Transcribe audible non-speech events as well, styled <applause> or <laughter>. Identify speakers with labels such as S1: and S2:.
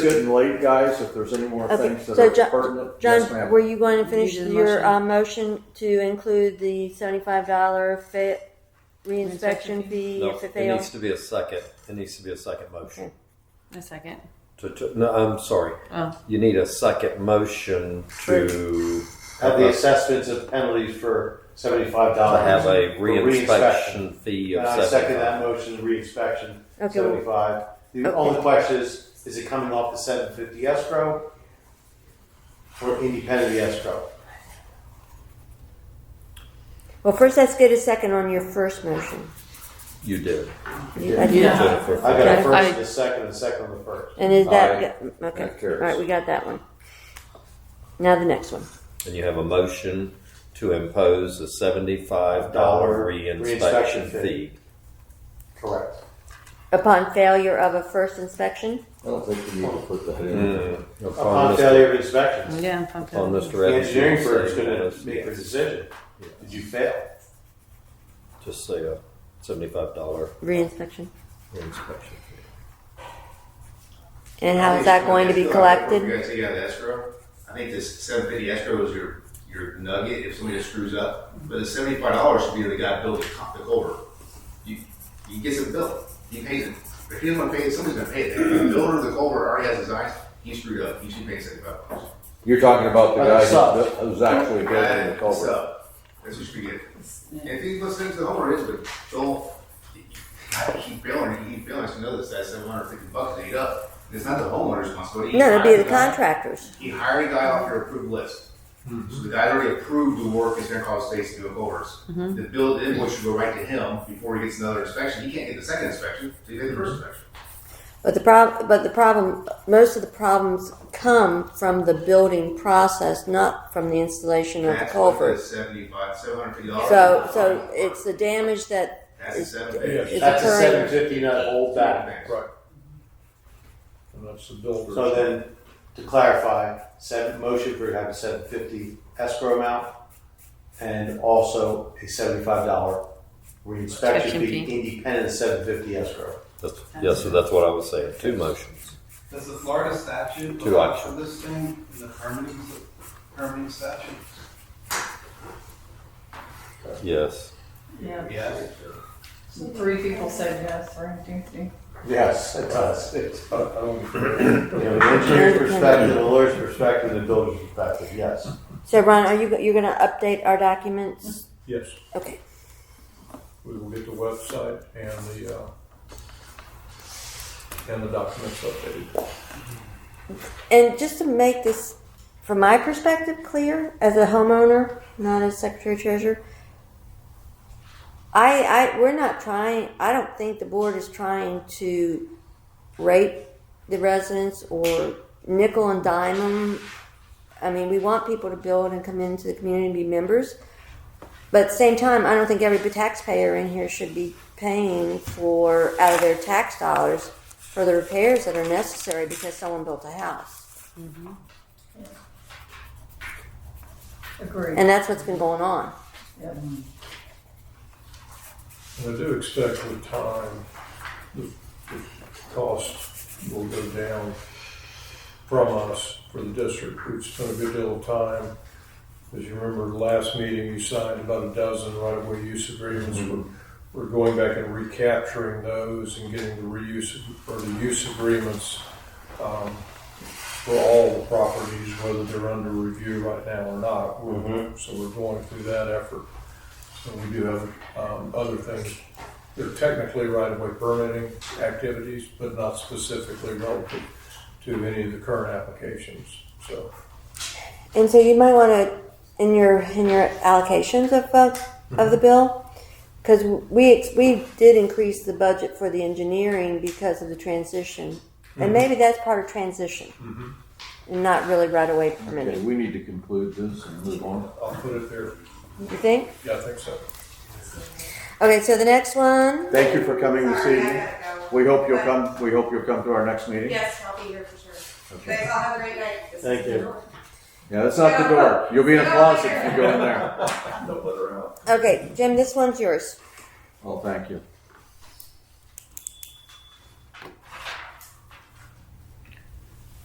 S1: Good and late, guys, if there's any more
S2: Okay,
S1: things that
S2: so
S1: are
S2: John,
S1: pertinent. Yes,
S2: John, were
S1: ma'am.
S2: you going to finish
S3: You did the
S2: your,
S3: motion.
S2: uh, motion to include the seventy-five dollar fit,
S3: Reinspection
S2: reinspection fee
S4: No,
S2: if it
S4: it needs
S2: fails?
S4: to be a second, it needs to be a second motion.
S3: A second.
S4: To, to, no, I'm sorry,
S3: Oh.
S4: you need a second motion to
S5: Have the assessments of penalties for seventy-five
S4: to
S5: dollars.
S4: have a reinspection fee
S5: And
S4: of
S5: I second
S4: seventy-five.
S5: that motion, reinspection,
S2: Okay.
S5: seventy-five. The
S2: Okay.
S5: only question is, is it coming off the seven fifty escrow? Or independent of the escrow?
S2: Well, first, let's get a second on your first motion.
S4: You did.
S2: You got
S3: Yeah.
S2: that?
S4: You did it
S5: <laughs>
S4: for
S5: I got
S2: Okay.
S5: a first
S3: I-
S5: and a second, and a second and a first.
S2: And is that,
S1: Aye.
S2: okay,
S1: That
S2: all
S1: carries.
S2: right, we got that one. Now the next one.
S4: And you have a motion to impose a seventy-five dollar
S5: Dollar
S4: reinspection
S5: reinspection
S4: fee.
S5: fee. Correct.
S2: Upon failure of a first inspection,
S1: I don't think we need to put that in.
S4: Mm, Upon
S5: Upon
S4: Mr.
S5: failure of inspection,
S3: Yeah, I'm pumped.
S4: Upon
S3: up.
S4: Mr.
S5: the
S4: Evans. you'll
S5: engineering firm is
S4: say yes,
S5: gonna make the
S4: yes.
S5: decision. Did you fail?
S4: Just say a seventy-five dollar
S2: reinspection,
S4: reinspection.
S2: and how is that going to be collected?
S6: We're gonna take out the escrow. I think this seven fifty escrow is your, your nugget if somebody screws up. But the seventy-five dollars should be the guy building the culvert. You, you get some bill, he pays it. If he doesn't pay it, somebody's gonna pay it. The builder of the culvert already has his eyes, he screwed up, he should pay seventy-five dollars.
S1: You're talking about the
S5: Like
S1: guy
S5: a sub.
S1: who- who's actually building the culvert.
S6: That's what you should get. And if he listens to the homeowner, it's, but Joel, he- he- he keep billing, it, he keep billing, us to know this, that's seven hundred fifty bucks to eat up. It's not the homeowner's responsibility. He
S2: No, it'd
S6: hired
S2: be the
S6: guy.
S2: contractors.
S6: He hired a guy off your approved list.
S5: Hmm.
S6: So the guy already approved the work is gonna cause states to go overs.
S2: Mm-hmm.
S6: The bill, the invoice should go right to him before he gets another inspection. He can't get the second inspection, so he did the first inspection.
S2: But the prob, but the problem, most of the problems come from the building process, not from the installation of the
S6: That's what
S2: culvert.
S6: Seventy-five, seven hundred fifty dollars.
S2: So, so it's the damage that
S6: That's a
S2: is,
S6: seven fifty.
S2: is
S5: That's a seven
S2: occurring.
S5: fifty, not hold back.
S6: Right.
S7: And that's the builder's.
S5: So then, to clarify, seven, motion for have a seven fifty escrow amount and also a seventy-five dollar reinspection
S3: Inspection
S5: fee independent of seven fifty escrow.
S4: That's, yes, so that's what I was saying, two motions.
S8: Does the Florida statute
S4: Two
S8: allow
S4: options.
S8: for this thing in the permitting, permitting statute?
S4: Yes,
S9: Yeah,
S8: Yes.
S9: so three people said yes, right? Ding, ding.
S5: Yes, it does. It's,
S7: <laughs> I- I don't-
S5: you know, the engineer's perspective, the lawyer's perspective, the builder's perspective, yes.
S2: So Ron, are you, you're gonna update our documents?
S7: Yes,
S2: Okay,
S7: we will get the website and the, uh, and the documents updated.
S2: and just to make this, from my perspective, clear, as a homeowner, not as secretary treasurer, I, I, we're not trying, I don't think the board is trying to rate the residents or nickel and dime them. I mean, we want people to build and come into the community and be members. But at the same time, I don't think every taxpayer in here should be paying for, out of their tax dollars, for the repairs that are necessary because someone built a house.
S9: Agreed.
S2: And that's what's been going on.
S9: Yep.
S7: And I do expect with time, the, the cost will go down from us for the district. We've spent a good deal of time. As you remember, last meeting, we signed about a dozen right-of-way use agreements. We're, we're going back and recapturing those and getting the reuse, or the use agreements, um, for all the properties, whether they're under review right now or not. We're- So we're going through that effort. So we do have, um, other things. They're technically right-of-way permitting activities, but not specifically relative to any of the current applications, so.
S2: And so you might want to in your in your allocations of uh, of the bill because we ex- we did increase the budget for the engineering because of the transition, and maybe that's part of transition, and not really right away
S1: Okay,
S2: permitting.
S1: we need to conclude this and move on.
S7: I'll put it there,
S2: You think?
S7: yeah, I think so.
S2: Okay, so the next one.
S1: Thank you for coming this
S10: Sorry, I
S1: evening.
S10: gotta go.
S1: We hope you'll
S10: But-
S1: come, we hope you'll come to our next meeting.
S10: Yes, I'll be here for sure. You guys all have a great night. This is
S5: Thank you.
S1: Yeah, that's not the door. You'll be in a closet if you go in there.
S7: Don't let her out.
S2: Okay, Jim, this one's yours.
S1: Well, thank you.